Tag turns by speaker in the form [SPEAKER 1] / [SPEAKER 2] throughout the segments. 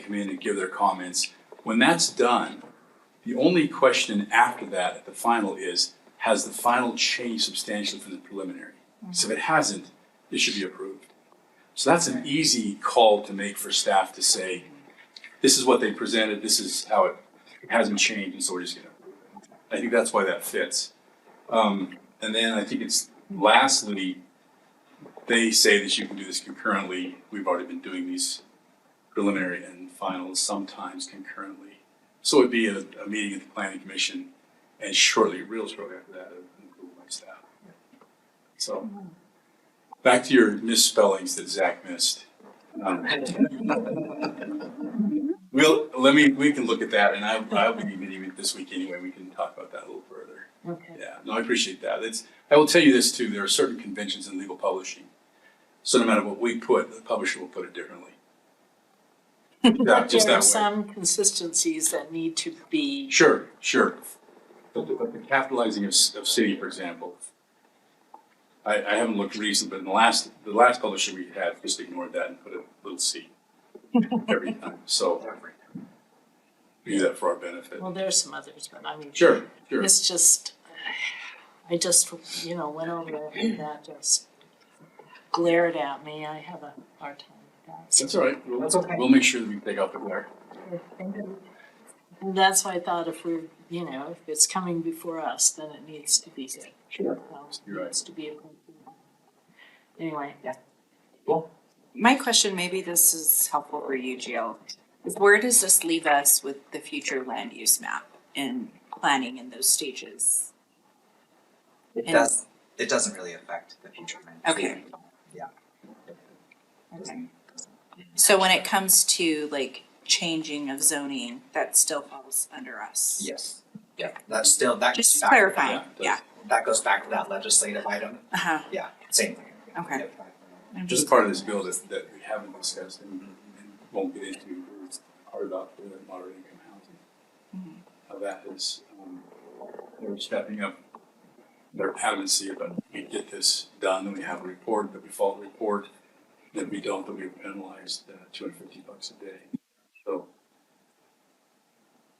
[SPEAKER 1] come in and give their comments. When that's done, the only question after that at the final is, has the final changed substantially from the preliminary? So if it hasn't, it should be approved. So that's an easy call to make for staff to say, this is what they presented, this is how it hasn't changed, and so we're just gonna. I think that's why that fits. Um, and then I think it's lastly, they say that you can do this concurrently. We've already been doing these preliminary and finals sometimes concurrently. So it'd be a, a meeting at the planning commission and shortly, real shortly after that, it would my staff. So, back to your misspellings that Zach missed. Um, We'll, let me, we can look at that and I, I'll be meeting with this week anyway. We can talk about that a little further.
[SPEAKER 2] Okay.
[SPEAKER 1] Yeah, no, I appreciate that. It's, I will tell you this too, there are certain conventions in legal publishing. So no matter what we put, the publisher will put it differently. Yeah,
[SPEAKER 2] But
[SPEAKER 1] just
[SPEAKER 2] there are
[SPEAKER 1] that way.
[SPEAKER 2] some consistencies that need to be,
[SPEAKER 1] Sure, sure. But the, but the capitalizing of, s- of city, for example. I, I haven't looked recent, but in the last, the last publisher we had just ignored that and put a little C every time, so. we Do that for our benefit.
[SPEAKER 2] well, there are some others, but I mean.
[SPEAKER 1] Sure, sure.
[SPEAKER 2] It's just, I just, you know, went over there and that just glared at me. I have a hard time with that. So-
[SPEAKER 1] That's all right. We'll,
[SPEAKER 2] That's okay.
[SPEAKER 1] we'll make sure that we take out the glare.
[SPEAKER 2] And that's why I thought if we're, you know, if it's coming before us, then it needs to be good.
[SPEAKER 1] Sure.
[SPEAKER 2] Um,
[SPEAKER 1] You're right.
[SPEAKER 2] Needs to be. appropriate. Anyway, yeah.
[SPEAKER 3] My question, maybe this is helpful for you, Jill, is where does this leave us with the future land use map and planning in those stages?
[SPEAKER 4] It
[SPEAKER 3] And-
[SPEAKER 4] does, it doesn't really affect the future plans.
[SPEAKER 3] Okay.
[SPEAKER 4] Yeah.
[SPEAKER 3] Okay. So when it comes to like changing of zoning, that still falls under us?
[SPEAKER 4] Yes, yeah, that's still, that goes
[SPEAKER 3] Just
[SPEAKER 4] back-
[SPEAKER 3] clarifying,
[SPEAKER 1] Yeah,
[SPEAKER 3] yeah,
[SPEAKER 4] That goes back to that legislative item,
[SPEAKER 3] uh-huh,
[SPEAKER 4] yeah, same thing.
[SPEAKER 3] okay.
[SPEAKER 4] Yep.
[SPEAKER 3] I'm
[SPEAKER 1] Just
[SPEAKER 3] just-
[SPEAKER 1] part of this bill that, that we haven't discussed and and won't get into, is part about the moderate income housing. How that is, um, they're stepping up their adamancy about we get this done, and we have a report, the default report. That we don't, that we are penalized uh, two hundred fifty bucks a day, so.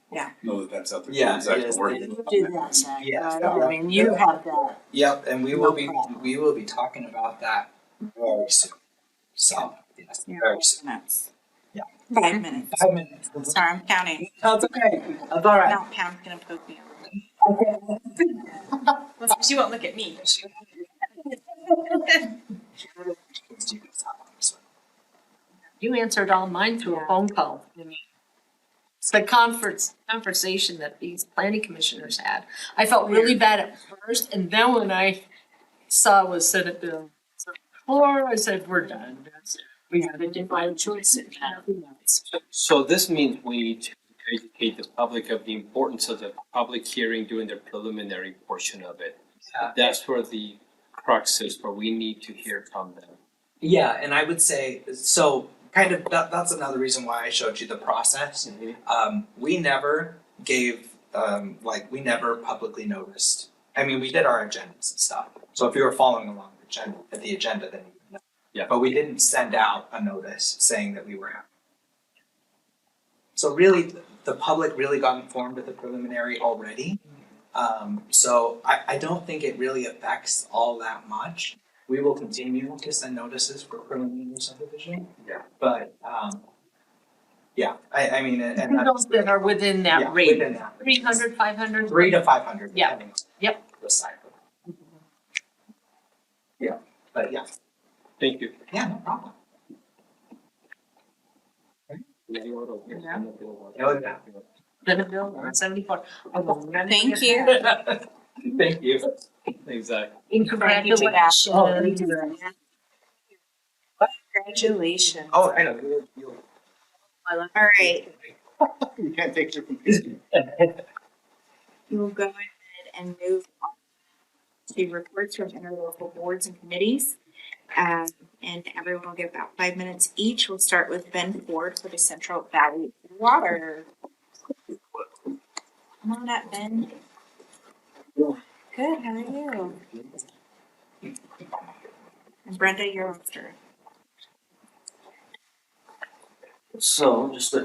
[SPEAKER 3] Yeah.
[SPEAKER 1] Know that that's out there.
[SPEAKER 4] Yeah,
[SPEAKER 1] It's actually
[SPEAKER 4] it is.
[SPEAKER 1] working.
[SPEAKER 2] You do that, Zach,
[SPEAKER 4] Yes,
[SPEAKER 2] right?
[SPEAKER 4] that
[SPEAKER 2] I
[SPEAKER 4] one.
[SPEAKER 2] mean, you have that.
[SPEAKER 4] Yep, and we will be,
[SPEAKER 2] No problem.
[SPEAKER 4] we will be talking about that very soon, so, yes,
[SPEAKER 3] Yeah.
[SPEAKER 4] very soon.
[SPEAKER 3] Minutes.
[SPEAKER 4] Yeah.
[SPEAKER 3] Five minutes,
[SPEAKER 4] Five minutes.
[SPEAKER 3] sorry, I'm counting,
[SPEAKER 4] That's okay, that's all
[SPEAKER 3] now Pam's gonna poke me.
[SPEAKER 5] She won't look at me.
[SPEAKER 2] You answered all mine through a phone call.
[SPEAKER 6] I mean, It's the conference, conversation that these planning commissioners had. I felt really bad at first, and then when I saw was Senate Bill four, I said, we're done. That's it.
[SPEAKER 2] We have a divine choice in that.
[SPEAKER 7] So this means we need to educate the public of the importance of the public hearing during the preliminary portion of it.
[SPEAKER 4] Yeah.
[SPEAKER 7] That's where the crux is, where we need to hear from them.
[SPEAKER 4] Yeah, and I would say, so, kind of, that, that's another reason why I showed you the process. um, we never gave um, like we never publicly noticed. I mean, we did our agendas and stuff. So if you were following along the agenda, the agenda, then you would know.
[SPEAKER 7] Yeah.
[SPEAKER 4] But we didn't send out a notice saying that we were having. So really, th- the public really got informed of the preliminary already. Um, so I, I don't think it really affects all that much. We will continue to send notices for preliminary subdivision.
[SPEAKER 7] Yeah.
[SPEAKER 4] But um, yeah, I, I mean, and, and
[SPEAKER 6] Those that are within
[SPEAKER 4] yeah,
[SPEAKER 6] that rate,
[SPEAKER 4] within that.
[SPEAKER 6] three hundred, five hundred.
[SPEAKER 4] Three to five hundred,
[SPEAKER 6] Yeah.
[SPEAKER 4] depending on.
[SPEAKER 6] Yep.
[SPEAKER 4] The cycle. Yeah, but yeah,
[SPEAKER 7] Thank you.
[SPEAKER 4] yeah, no problem.
[SPEAKER 6] Yeah.
[SPEAKER 4] Oh, yeah.
[SPEAKER 6] Senate Bill one seventy-four. I will never
[SPEAKER 3] Thank
[SPEAKER 6] forget
[SPEAKER 3] you.
[SPEAKER 6] that.
[SPEAKER 7] Thank you. Exactly.
[SPEAKER 6] And congratulations.
[SPEAKER 4] Oh,
[SPEAKER 2] Oh,
[SPEAKER 3] Congratulations.
[SPEAKER 4] Oh, I know, you'll, you'll.
[SPEAKER 6] I love-
[SPEAKER 3] All right,
[SPEAKER 4] You can't take your.
[SPEAKER 3] We'll go ahead and move on to reports from interlocal boards and committees. Um, and everyone will get about five minutes each. We'll start with Ben Ford for the Central Valley Water. Come on up, Ben. Good, how are you? And Brenda, you're after.
[SPEAKER 8] So just a